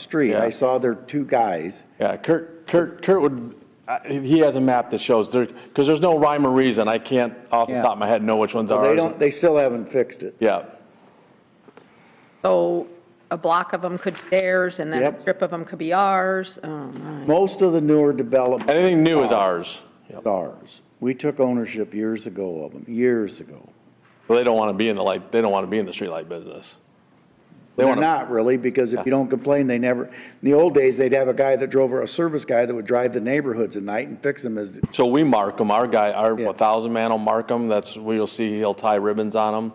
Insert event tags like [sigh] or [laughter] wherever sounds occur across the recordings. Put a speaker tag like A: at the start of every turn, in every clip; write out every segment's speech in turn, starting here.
A: street,
B: Yeah.
A: I saw there two guys.
B: Yeah, Kurt, Kurt, Kurt would, I- he has a map that shows there, because there's no rhyme or reason. I can't off the
A: Yeah.
B: top of my head know which ones are.
A: They
B: ours.
A: don't, they still haven't fixed it.
B: Yeah,
C: So a block of them could be theirs, and then a
A: Yep.
C: strip of them could be ours. Oh, my.
A: Most of the newer developments
B: anything new is ours.
A: are ours. We took ownership years ago of them, years ago.
B: But they don't want to be in the light, they don't want to be in the streetlight business. They
A: They're
B: want to,
A: not really, because if you don't complain, they never, in the old days, they'd have a guy that drove, a service guy that would drive the neighborhoods at night and fix them as,
B: so we mark them, our guy, our
A: Yeah.
B: 1,000 man will mark them, that's, where you'll see he'll tie ribbons on them.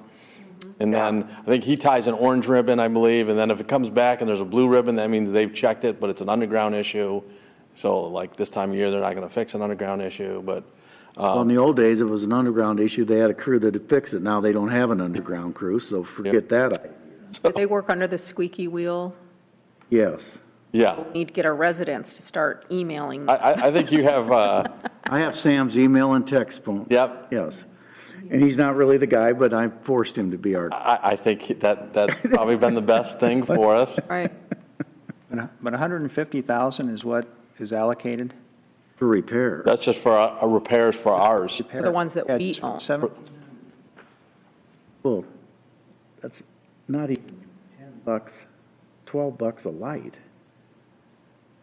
B: And then, I think he ties an orange ribbon, I believe, and then if it comes back and there's a blue ribbon, that means they've checked it, but it's an underground issue. So like this time of year, they're not going to fix an underground issue, but
A: Well, in the old days, it was an underground issue. They had a crew that would fix it. Now they don't have an underground crew, so forget that.
C: Do they work under the squeaky wheel?
A: Yes.
B: yeah.
C: Need to get our residents to start emailing.
B: I, I, I think you have, uh,
A: I have Sam's email and text phone.
B: yep,
A: Yes. And he's not really the guy, but I forced him to be our,
B: I, I think that,
C: [laughs]
B: that's probably been the best thing for us.
A: [laughs]
C: Right.
D: And- But 150,000 is what is allocated?
A: for repair.
B: That's just for our our repairs for ours.
C: The ones that
D: Yeah,
C: we own.
D: seven-
A: Well, that's not even ten bucks, twelve bucks a light.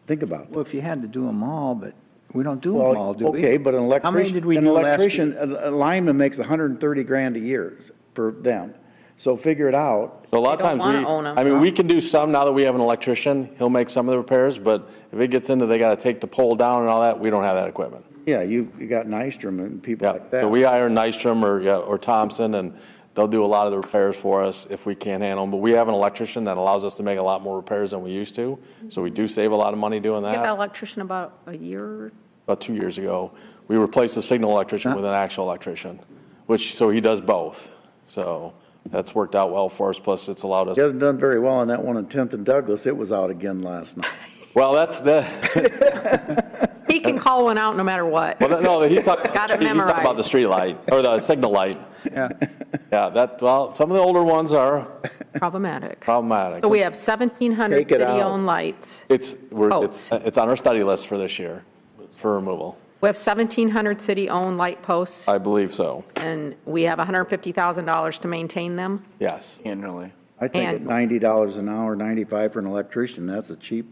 A: Think about it.
D: Well, if you had to do them all, but we don't do them all,
A: Well,
D: do we?
A: okay, but an
D: How many did
A: electrician,
D: we
A: an
D: do last year?
A: electrician, a a lineman makes hundred and thirty grand a year for them. So figure it out.
B: So a lot of
C: They don't
B: times
C: wanna
B: we,
C: own 'em.
B: I mean, we can do some now that we have an electrician. He'll make some of the repairs, but if it gets into they got to take the pole down and all that, we don't have that equipment.
A: Yeah, you, you got Nystrom and people
B: Yeah.
A: like that.
B: So we hire Nystrom or, yeah, or Thompson and they'll do a lot of the repairs for us if we can't handle them. But we have an electrician that allows us to make a lot more repairs than we used to. So we do save a lot of money doing
C: Get that
A: Uh,
B: that.
C: electrician about a year.
B: About two years ago, we replaced the signal electrician with an actual electrician, which, so he does both. So that's worked out well for us. Plus it's allowed us
A: He hasn't done very well on that one on Tenth and Douglas. It was out again last night.
B: Well, that's the,
C: He can call one out no matter what.
B: well, no, he's
C: [laughs]
B: talking, he's
C: Got it
B: talking about
C: memorized.
B: the street light, or the signal light.
D: Yeah.
B: [laughs] Yeah, that, well, some of the older ones are
C: Problematic.
B: problematic.
C: So we have 1,700
A: Take it out.
C: city-owned lights.
B: It's, we're,
C: Oh.
B: it's, it's on our study list for this year, for removal.
C: We have 1,700 city-owned light posts,
B: I believe so,
C: and we have $150,000 to maintain them.
B: yes.
E: annually.
A: I think at
C: And-
A: ninety dollars an hour, ninety-five for an electrician, that's a cheap,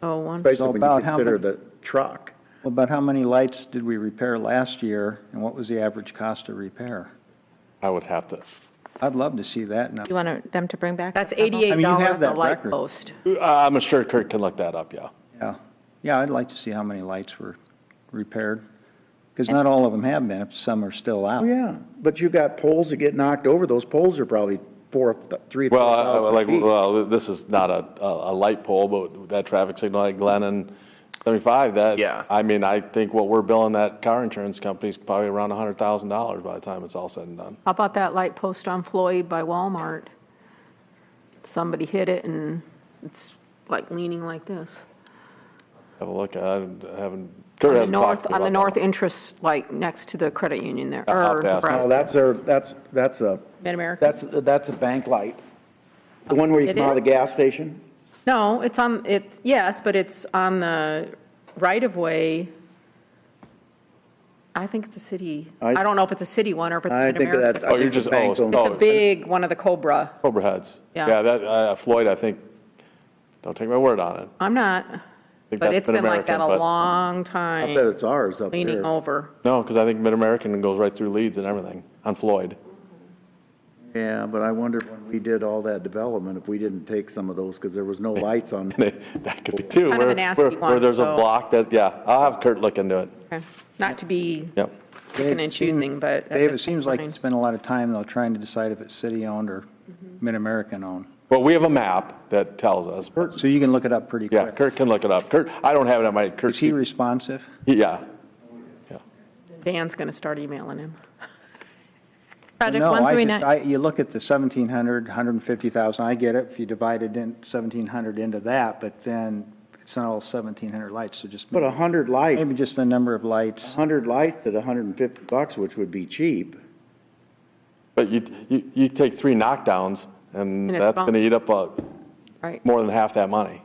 C: So one,
A: especially when you
D: about how
A: consider
D: much-
A: the truck.
D: Well, But how many lights did we repair last year, and what was the average cost of repair?
B: I would have to,
D: I'd love to see that now.
F: You want them to bring back?
C: that's
F: the level?
D: I mean, you have
C: $88 a
D: that
C: light
D: record.
C: post.
B: uh, I'm sure Kurt can look that up, yeah.
D: Yeah, yeah, I'd like to see how many lights were repaired, because not all of them have been, if some are still out.
A: Oh, yeah, but you got poles that get knocked over, those poles are probably four, three.
B: Well, I- I- like,
A: feet.
B: well, this is not a, a, a light pole, but that traffic signal at Glen and seventy-five, that.
E: Yeah.
B: I mean, I think what we're billing that car insurance company is probably around a hundred thousand dollars by the time it's all said and done.
C: How about that light post on Floyd by Walmart? Somebody hit it and it's like leaning like this.
B: Have a look, I haven't.
C: On the north, on the north e-, interest, like next to the credit union there,
B: I'll have
C: or
B: to ask
A: No,
C: or
A: Uh, Oh, that's their, that's, that's a,
C: Mid-America.
A: that's, that's a bank light. The one where you
C: It
A: come out of the
C: is?
A: gas station?
C: No, it's on, it's, yes, but it's on the right-of-way. I think it's a city,
A: I-
C: I don't know if it's a city one or if it's
A: I think
C: Mid-America.
A: that. I
B: Oh, you're
A: think the
B: just- oh,
A: bank
B: it's-
A: owns-
B: oh.
C: It's a big one of the Cobra.
B: Cobra Heads.
C: Yeah.
B: Yeah, that, uh, Floyd, I think, don't take my word on it.
C: I'm not,
B: think
C: but
B: that's
C: it's been like
B: Mid-American,
C: that a
B: but-
C: long
A: I bet
C: time,
A: it's ours up there.
C: leaning over.
B: No, because I think Mid-American goes right through Leeds and everything on Floyd. [laughs]
A: Yeah, but I wonder when we did all that development, if we didn't take some of those, because there was no lights on.
B: That could be too.
C: Kind of
B: where-
C: a nasty
B: where- Where
C: one,
B: there's a
C: so-
B: block that, yeah, I'll have Kurt look into it.
C: Okay. Not to be
B: Yep.
C: picking and choosing, but. at
D: Dave, it
C: this
D: seems like you
C: point-
D: spend a lot of time, though, trying to decide if it's city-owned or
C: Mm-hmm.
D: Mid-American-owned.
B: But we have a map that tells us.
D: So you can look it up pretty quick.
B: Yeah, Kurt can look it up. Kurt, I don't have it on my, Kurt,
D: Is he responsive?
B: yeah.
C: Dan's going to start emailing him.
F: Project
D: No, I just-
F: 139,
D: I- You look at the 1,700, 150,000, I get it, if you divide it in, 1,700 into that, but then it's not all 1,700 lights, so just,
A: But a hundred lights,
D: maybe just the number of
A: a
D: lights.
A: hundred lights at hundred and fifty bucks, which would be cheap.
B: But you, you, you take three knockdowns and
C: And it's
B: that's
C: gone.
B: going to eat up uh,
C: Right.
B: more than half that money.